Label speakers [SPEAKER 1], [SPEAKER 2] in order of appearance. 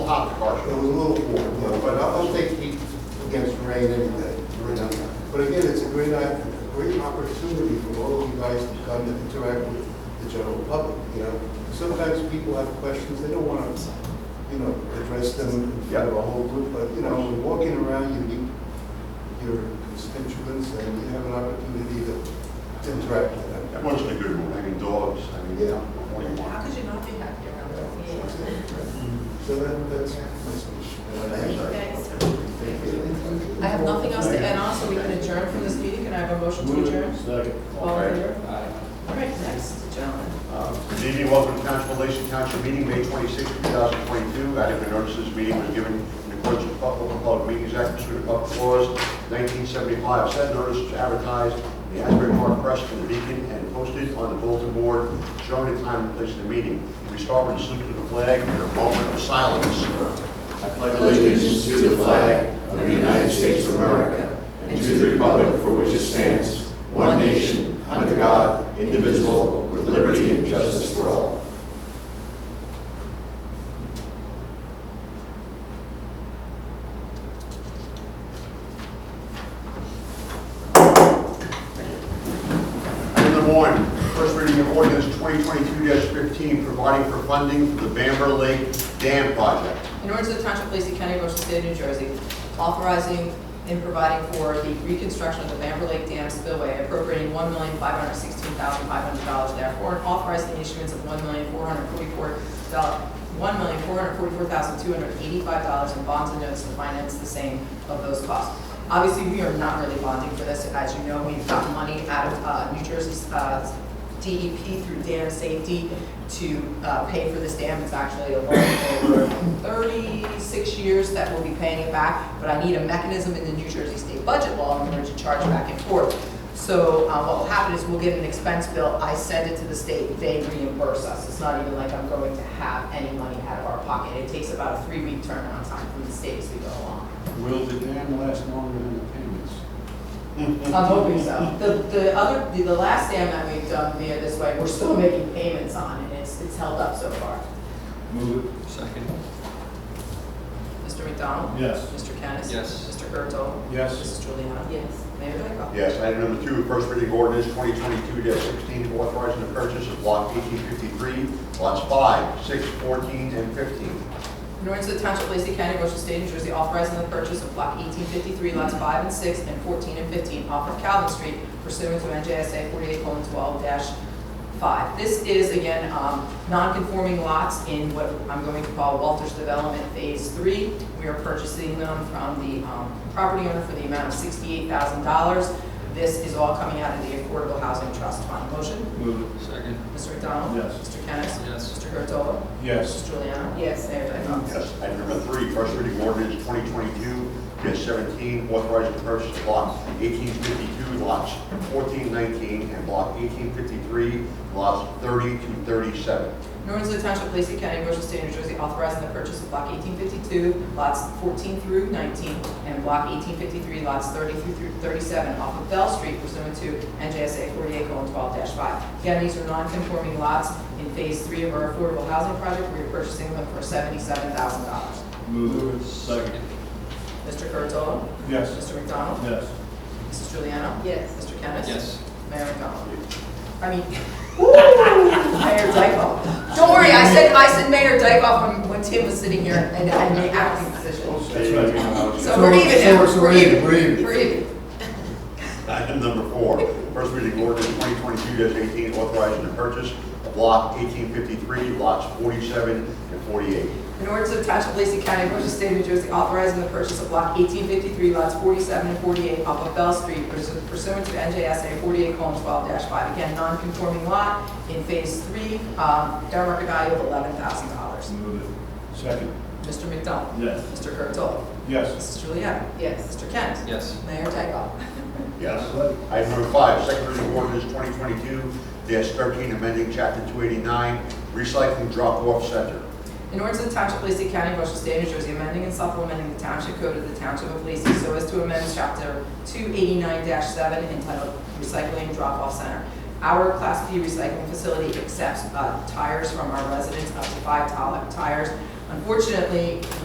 [SPEAKER 1] partial.
[SPEAKER 2] It was a little warm, you know, but I'll I'll take heat against rain every day. every night. But again, it's a great, i- a great opportunity for all of you guys to come and interact with the general public, you know. Sometimes people have questions, they don't want to, you know, address them in front of a whole group, but, you know, when walking around, you meet your constituents and you have an opportunity to interact with them.
[SPEAKER 1] That wasn't a good one, I mean, dogs, I mean,
[SPEAKER 2] Yeah.
[SPEAKER 1] what do you
[SPEAKER 3] How
[SPEAKER 1] want?
[SPEAKER 3] could you not be happy around that?
[SPEAKER 2] So that, that's my speech.
[SPEAKER 3] Thanks.
[SPEAKER 2] I
[SPEAKER 3] I have nothing else to add on, so we can adjourn from this meeting. Can I have a motion to adjourn? All in favor? All right, next, gentlemen.
[SPEAKER 1] Uh, Good evening, welcome to Council Relation Council meeting, May 26, 2022. I have notice this meeting was given in accordance with Public Public Meetings Act, pursuant to public laws 1975. Said notice was advertised in the Asbury Park Press and the Beacon and posted on the bulletin board showing the time and place of the meeting. We start with a salute to the flag and a moment of silence.
[SPEAKER 4] I pledge allegiance to the flag of the United States of America and to the republic for which it stands, one nation, under God, indivisible, with liberty and justice for all.
[SPEAKER 1] Item number one, first reading of ordinance 2022-15, providing for funding for the Bamber Lake Dam Project.
[SPEAKER 3] In order to the Township of Lacey County, Ocean State of New Jersey, authorizing and providing for the reconstruction of the Bamber Lake Dam spillway, appropriating one million five hundred sixteen thousand five hundred dollars therefore, and authorizing the issuance of one million four hundred forty-four one million four hundred forty-four thousand two hundred eighty-five dollars in bonds and notes to finance the same of those costs. Obviously, we are not really bonding for this. As you know, we've got money out of uh, New Jersey's uh, DEP through dam safety to uh, pay for this dam. It's actually a loan over 36 years that we'll be paying it back, but I need a mechanism in the New Jersey state budget law in order to charge back and forth. So uh, what will happen is we'll get an expense bill, I send it to the state, they reimburse us. It's not even like I'm going to have any money out of our pocket. It takes about a three-week turnaround time from the state as we go along.
[SPEAKER 5] Will the dam last longer than the payments?
[SPEAKER 3] I'm hoping so. The, the other, the- the last dam that we've done via this way, we're still making payments on, and it's, it's held up so far.
[SPEAKER 5] Move it. Second.
[SPEAKER 3] Mr. McDonald?
[SPEAKER 5] Yes.
[SPEAKER 3] Mr. Kennis?
[SPEAKER 5] Yes.
[SPEAKER 3] Mr. Gertol?
[SPEAKER 5] Yes.
[SPEAKER 3] Mrs. Juliana? Yes. Mayor Dyckoff?
[SPEAKER 1] Yes, item number two, first reading ordinance 2022-16, authorizing the purchase of block 1853, lots 5, 6, 14, and 15.
[SPEAKER 3] In order to the Township of Lacey County, Ocean State, New Jersey, authorizing the purchase of block 1853, lots 5 and 6, and 14 and 15 off of Calvin Street pursuant to NJSA 48:12-5. This is, again, um, non-conforming lots in what I'm going to call Walters Development Phase 3. We are purchasing them from the um, property owner for the amount of $68,000. This is all coming out of the Affordable Housing Trust Fund. Motion?
[SPEAKER 5] Move it. Second.
[SPEAKER 3] Mr. McDonald?
[SPEAKER 5] Yes.
[SPEAKER 3] Mr. Kennis?
[SPEAKER 5] Yes.
[SPEAKER 3] Mr. Curatolo?
[SPEAKER 5] Yes.
[SPEAKER 3] Mrs. Juliana? Yes. Mayor Dyckoff?
[SPEAKER 1] Yes, item number three, first reading ordinance 2022-17, authorizing the purchase of block 1852, lots 14, 19, and block 1853, lots 30 to 37.
[SPEAKER 3] In order to the Township of Lacey County, Ocean State, New Jersey, authorizing the purchase of block 1852, lots 14 through 19, and block 1853, lots 30 through 37 off of Bell Street pursuant to NJSA 48:12-5. Again, these are non-conforming lots in Phase 3 of our affordable housing project. We are purchasing them for $77,000.
[SPEAKER 5] Move it. Second.
[SPEAKER 3] Mr. Curatolo?
[SPEAKER 5] Yes.
[SPEAKER 3] Mr. McDonald?
[SPEAKER 5] Yes.
[SPEAKER 3] Mrs. Juliana? Yes. Mr. Kennis?
[SPEAKER 5] Yes.
[SPEAKER 3] Mayor McDonald? I mean, Mayor Dykoff. Don't worry, I said, I said Mayor Dykoff when, when Tim was sitting here and I made acting decisions. So we're even now.
[SPEAKER 2] So we're even, we're even.
[SPEAKER 3] We're even.
[SPEAKER 1] Item number four, first reading ordinance 2022-18, authorizing the purchase of block 1853, lots 47 and 48.
[SPEAKER 3] In order to attach of Lacey County, Ocean State, New Jersey, authorizing the purchase of block 1853, lots 47 and 48 off of Bell Street pursu- pursuant to NJSA 48:12-5. Again, non-conforming lot in Phase 3, um, fair market value of $11,000.
[SPEAKER 5] Move it. Second.
[SPEAKER 3] Mr. McDonald?
[SPEAKER 5] Yes.
[SPEAKER 3] Mr. Curatolo?
[SPEAKER 5] Yes.
[SPEAKER 3] Mrs. Juliana? Yes. Mr. Kent?
[SPEAKER 5] Yes.
[SPEAKER 3] Mayor Dykoff?
[SPEAKER 1] Yes. Item number five, second reading ordinance 2022-13, amending chapter 289, recycling drop-off center.
[SPEAKER 3] In order to the Township of Lacey County, Ocean State, New Jersey, amending and supplementing the Township Code of the Township of Lacey so as to amend Chapter 289-7 entitled Recycling Drop-Off Center. Our Class B recycling facility accepts uh, tires from our residents up to five tol- tires. Unfortunately,